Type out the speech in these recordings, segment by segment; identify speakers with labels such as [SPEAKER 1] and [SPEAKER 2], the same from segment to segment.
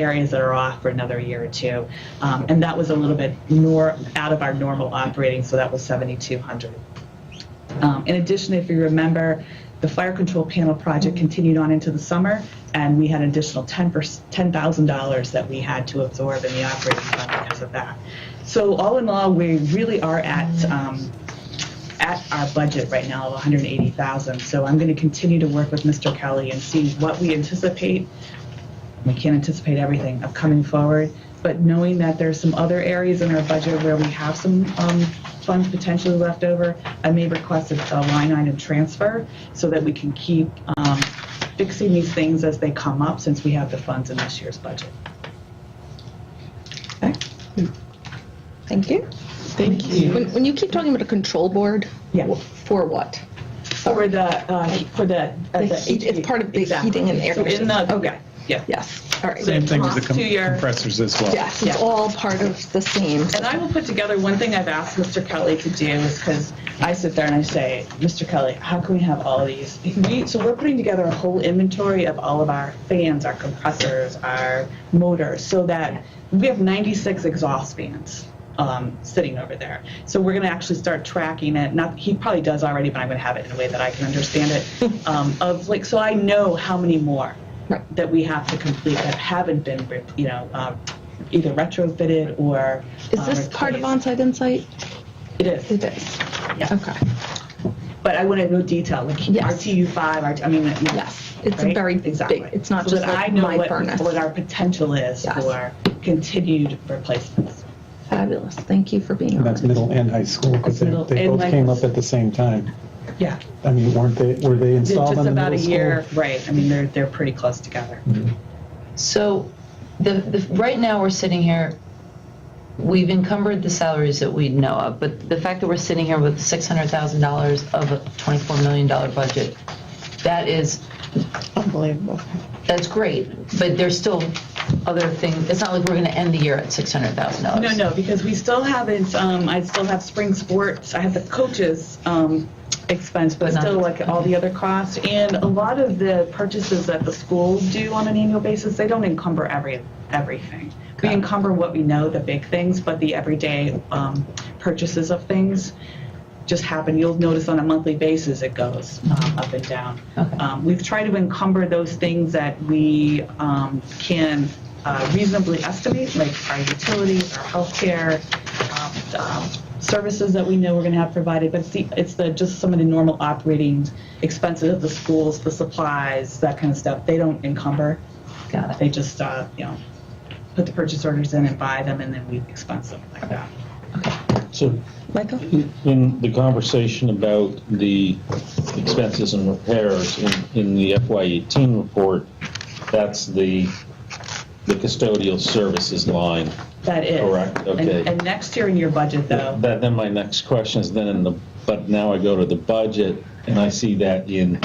[SPEAKER 1] areas that are off for another year or two. Um, And that was a little bit more out of our normal operating, so that was 7,200. Um, In addition, if you remember, the fire control panel project continued on into the summer, and we had an additional 10 per- $10,000 that we had to absorb in the operating fund because of that. So all in all, we really are at um, at our budget right now of 180,000. So I'm going to continue to work with Mr. Kelly and see what we anticipate. We can't anticipate everything of coming forward, but knowing that there's some other areas in our budget where we have some um, funds potentially left over, I may request a a line item transfer so that we can keep um, fixing these things as they come up since we have the funds in this year's budget.
[SPEAKER 2] Okay. Thank you.
[SPEAKER 1] Thank you.
[SPEAKER 2] When, when you keep talking about a control board,
[SPEAKER 1] Yeah.
[SPEAKER 2] wh- for what?
[SPEAKER 1] For the, uh, for the. uh,
[SPEAKER 2] The
[SPEAKER 1] the
[SPEAKER 2] heat- it's
[SPEAKER 1] HV.
[SPEAKER 2] part of the
[SPEAKER 1] Exactly.
[SPEAKER 2] heating and air
[SPEAKER 1] So in the-
[SPEAKER 2] conditioning.
[SPEAKER 1] yeah, Yeah.
[SPEAKER 2] Yes, all right.
[SPEAKER 1] So-
[SPEAKER 3] Same thing as the com-
[SPEAKER 1] To your-
[SPEAKER 3] compressors as well.
[SPEAKER 2] Yes, it's
[SPEAKER 1] Yeah.
[SPEAKER 2] all part of the same.
[SPEAKER 1] And I will put together, one thing I've asked Mr. Kelly to do is, because I sit there and I say, Mr. Kelly, how can we have all of these? We, so we're putting together a whole inventory of all of our fans, our compressors, our motors, so that we have 96 exhaust fans um, sitting over there. So we're going to actually start tracking it. Not he probably does already, but I'm going to have it in a way that I can understand it. Um, of like, so I know how many more
[SPEAKER 2] Right.
[SPEAKER 1] that we have to complete that haven't been, re- you know, um, either retrofitted or.
[SPEAKER 2] Is
[SPEAKER 1] um,
[SPEAKER 2] this part of
[SPEAKER 1] replaced.
[SPEAKER 2] onsite insight?
[SPEAKER 1] It is,
[SPEAKER 2] It is.
[SPEAKER 1] Yeah.
[SPEAKER 2] Okay,
[SPEAKER 1] but I want to know detail, like
[SPEAKER 2] Yes.
[SPEAKER 1] RTU five, RT, I mean. you know,
[SPEAKER 2] yes. It's a
[SPEAKER 1] right?
[SPEAKER 2] very big,
[SPEAKER 1] Exactly.
[SPEAKER 2] it's not
[SPEAKER 1] So
[SPEAKER 2] just
[SPEAKER 1] that I
[SPEAKER 2] like
[SPEAKER 1] know
[SPEAKER 2] my
[SPEAKER 1] what-
[SPEAKER 2] furnace.
[SPEAKER 1] What our potential is
[SPEAKER 2] Yes.
[SPEAKER 1] for continued replacements.
[SPEAKER 2] Fabulous, thank you for being
[SPEAKER 4] And
[SPEAKER 2] on.
[SPEAKER 4] that's middle and high school,
[SPEAKER 1] That's
[SPEAKER 4] because they,
[SPEAKER 1] middle
[SPEAKER 4] they
[SPEAKER 1] and
[SPEAKER 4] both
[SPEAKER 1] high-
[SPEAKER 4] came up at the same time.
[SPEAKER 1] Yeah.
[SPEAKER 4] I mean, weren't they, were they
[SPEAKER 1] It's
[SPEAKER 4] installed
[SPEAKER 1] just
[SPEAKER 4] on the
[SPEAKER 1] about a
[SPEAKER 4] middle
[SPEAKER 1] year,
[SPEAKER 4] school? Mm-hmm.
[SPEAKER 1] right, I mean, they're, they're pretty close together.
[SPEAKER 5] So, the, the, right now, we're sitting here, we've encumbered the salaries that we know of, but the fact that we're sitting here with $600,000 of a $24 million budget, that is,
[SPEAKER 2] Unbelievable.
[SPEAKER 5] that's great, but there's still other things, it's not like we're going to end the year at $600,000.
[SPEAKER 1] No, no, because we still haven't, um, I still have spring sports, I have the coaches, um, expense, but
[SPEAKER 5] But not-
[SPEAKER 1] still like all the other costs. And a lot of the purchases that the schools do on an annual basis, they don't encumber every, everything. We
[SPEAKER 5] Okay.
[SPEAKER 1] encumber what we know, the big things, but the everyday, um, purchases of things just happen. You'll notice on a monthly basis it goes um, up and down.
[SPEAKER 5] Mm-hmm. Okay.
[SPEAKER 1] Um, we've tried to encumber those things that we um, can uh, reasonably estimate, like our utilities, our healthcare, um, um, services that we know we're going to have provided. But it's the, it's the just some of the normal operating expenses of the schools, the supplies, that kind of stuff. They don't encumber.
[SPEAKER 5] Got it.
[SPEAKER 1] They just uh, you know put the purchase orders in and buy them, and then we expense them like that.
[SPEAKER 6] So
[SPEAKER 2] Michael?
[SPEAKER 6] in the conversation about the expenses and repairs in, in the FY18 report, that's the, the custodial services line.
[SPEAKER 1] That is
[SPEAKER 6] Correct, okay.
[SPEAKER 1] And, and next year in your budget, though.
[SPEAKER 6] That, then my next question is then in the, but now I go to the budget and I see that in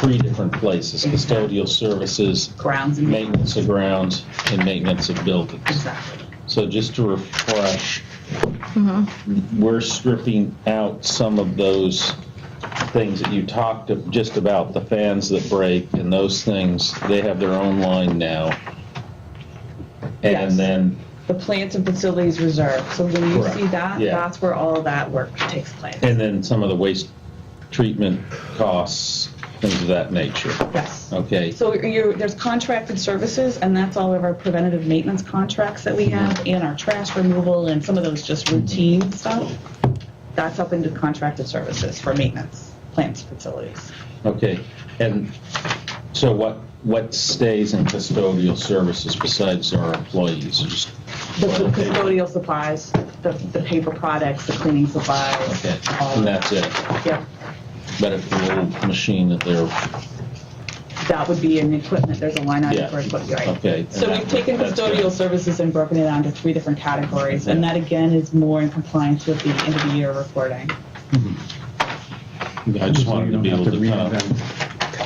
[SPEAKER 6] three different places, custodial services,
[SPEAKER 1] grounds and
[SPEAKER 6] maintenance of grounds, and maintenance of buildings.
[SPEAKER 1] Exactly.
[SPEAKER 6] So just to refresh,
[SPEAKER 1] Mm-hmm.
[SPEAKER 6] we're stripping out some of those things that you talked of- just about, the fans that break and those things, they have their own line now.
[SPEAKER 1] Yes.
[SPEAKER 6] And then,
[SPEAKER 1] The plants and facilities reserve. So when you
[SPEAKER 6] Correct.
[SPEAKER 1] see that,
[SPEAKER 6] Yeah.
[SPEAKER 1] that's where all of that work takes place.
[SPEAKER 6] and then some of the waste treatment costs, things of that nature,
[SPEAKER 1] yes.
[SPEAKER 6] okay?
[SPEAKER 1] So you there's contracted services, and that's all of our preventative maintenance contracts that we have, and our trash removal, and some of those just routine stuff. That's up into contracted services for maintenance, plants, facilities.
[SPEAKER 6] Okay, and so what, what stays in custodial services besides our employees? Just-
[SPEAKER 1] The custodial supplies, the, the paper products, the cleaning supplies.
[SPEAKER 6] Okay,
[SPEAKER 1] all
[SPEAKER 6] and
[SPEAKER 1] of that.
[SPEAKER 6] that's it?
[SPEAKER 1] Yep.
[SPEAKER 6] But if the little machine that they're,
[SPEAKER 1] That would be in equipment, there's a line item
[SPEAKER 6] Yeah.
[SPEAKER 1] for equipment, right?
[SPEAKER 6] Okay.
[SPEAKER 1] So we've taken
[SPEAKER 6] That's good.
[SPEAKER 1] custodial services and broken it down to three different categories, and that again is more in compliance with the end of the year reporting.
[SPEAKER 6] I just wanted to be able to kind of,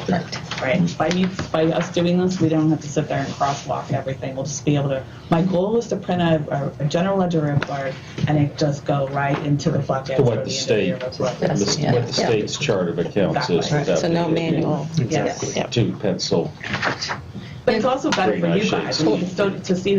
[SPEAKER 4] to.
[SPEAKER 2] Right.
[SPEAKER 1] Right, by me, by us doing this, we don't have to sit there and crosswalk everything, we'll just be able to, my goal is to print a, a- a general ledger report, and it just go right into the bucket. for
[SPEAKER 6] To what the
[SPEAKER 1] end of
[SPEAKER 6] state-
[SPEAKER 1] year report.
[SPEAKER 6] the-
[SPEAKER 5] Yeah.
[SPEAKER 6] what the state's chart of accounts is.
[SPEAKER 1] Exactly.
[SPEAKER 6] without
[SPEAKER 7] So no
[SPEAKER 6] the-
[SPEAKER 7] manual.
[SPEAKER 1] Yes.
[SPEAKER 6] Two pencil.
[SPEAKER 1] But it's also better
[SPEAKER 6] Great,
[SPEAKER 1] for
[SPEAKER 6] I
[SPEAKER 1] you
[SPEAKER 6] should
[SPEAKER 1] guys, I mean, so to see